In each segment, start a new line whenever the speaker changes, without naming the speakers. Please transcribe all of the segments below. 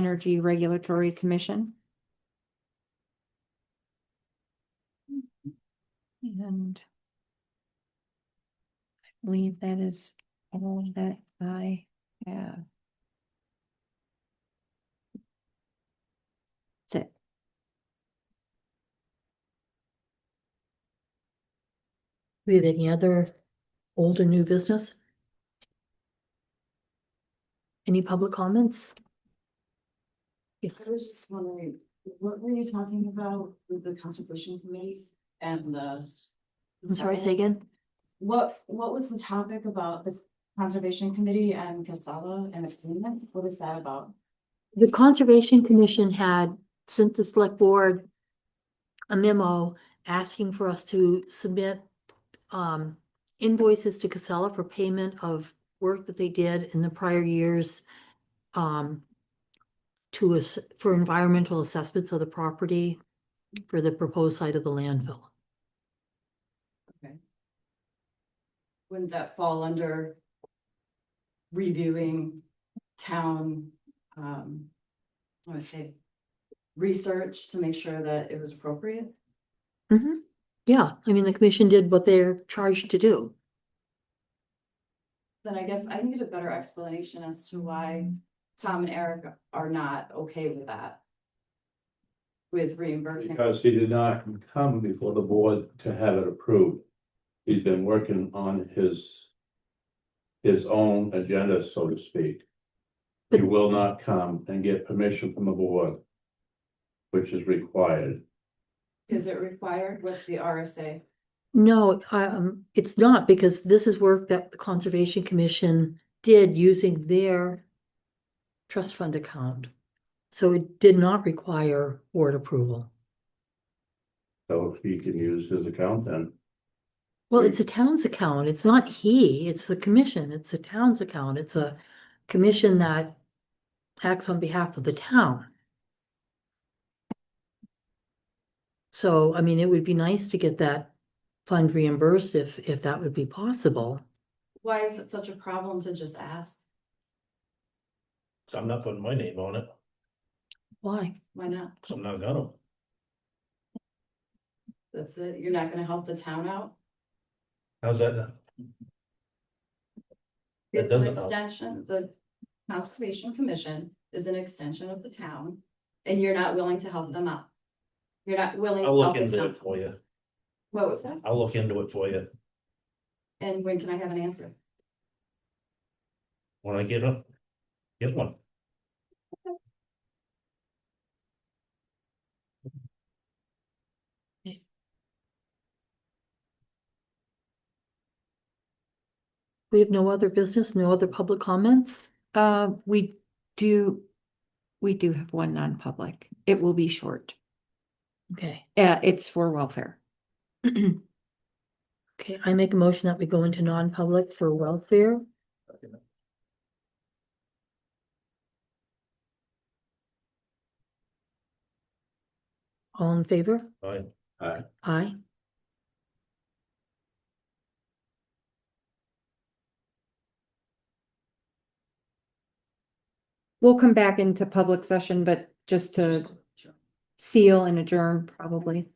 Energy Regulatory Commission. And I believe that is all that I have. That's it.
We have any other old or new business? Any public comments? Yes,
I was just wondering, what were you talking about with the conservation committee and the?
I'm sorry, say again.
What, what was the topic about the conservation committee and Casala and its agreement? What is that about?
The Conservation Commission had sent the select board a memo asking for us to submit um invoices to Casella for payment of work that they did in the prior years um to us for environmental assessments of the property for the proposed site of the landfill.
Wouldn't that fall under reviewing town, um, I would say, research to make sure that it was appropriate?
Mhm. Yeah, I mean, the commission did what they're charged to do.
Then I guess I need a better explanation as to why Tom and Eric are not okay with that. With reimbursing.
Because he did not come before the board to have it approved. He's been working on his. His own agenda, so to speak. He will not come and get permission from the board. Which is required.
Is it required? What's the RSA?
No, um, it's not because this is work that the Conservation Commission did using their trust fund account. So it did not require board approval.
So he can use his account then.
Well, it's a town's account. It's not he, it's the commission. It's the town's account. It's a commission that acts on behalf of the town. So, I mean, it would be nice to get that fund reimbursed if, if that would be possible.
Why is it such a problem to just ask?
So I'm not putting my name on it,
Why?
Why not?
so I'm not gonna.
That's it. You're not gonna help the town out?
How's that? That
It's an
doesn't help.
extension, the Conservation Commission is an extension of the town, and you're not willing to help them out. You're not willing. to
I'll look
help the
into
town.
it for you.
What was that?
I'll look into it for you.
And when can I have an answer?
When I get up, get one.
We have no other business, no other public comments?
Uh, we do, we do have one non-public. It will be short.
Okay,
Uh, it's for welfare.
okay, I make a motion that we go into non-public for welfare. All in favor?
Fine.
Aye.
We'll come back into public session, but just to seal and adjourn probably.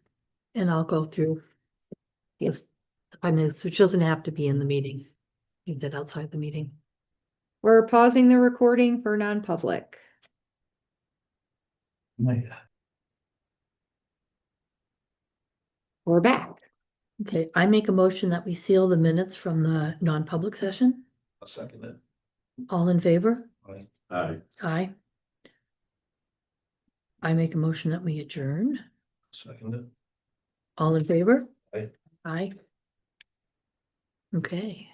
And I'll go through.
Yes.
The five minutes, which doesn't have to be in the meeting. You did outside the meeting.
We're pausing the recording for non-public. We're back.
Okay, I make a motion that we seal the minutes from the non-public session.
I'll second it.
All in favor?
Fine.
Aye.
Aye. I make a motion that we adjourn.
Second it.
All in favor?
Aye.
Aye. Okay.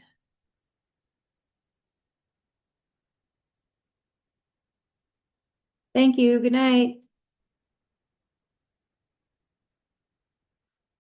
Thank you. Good night.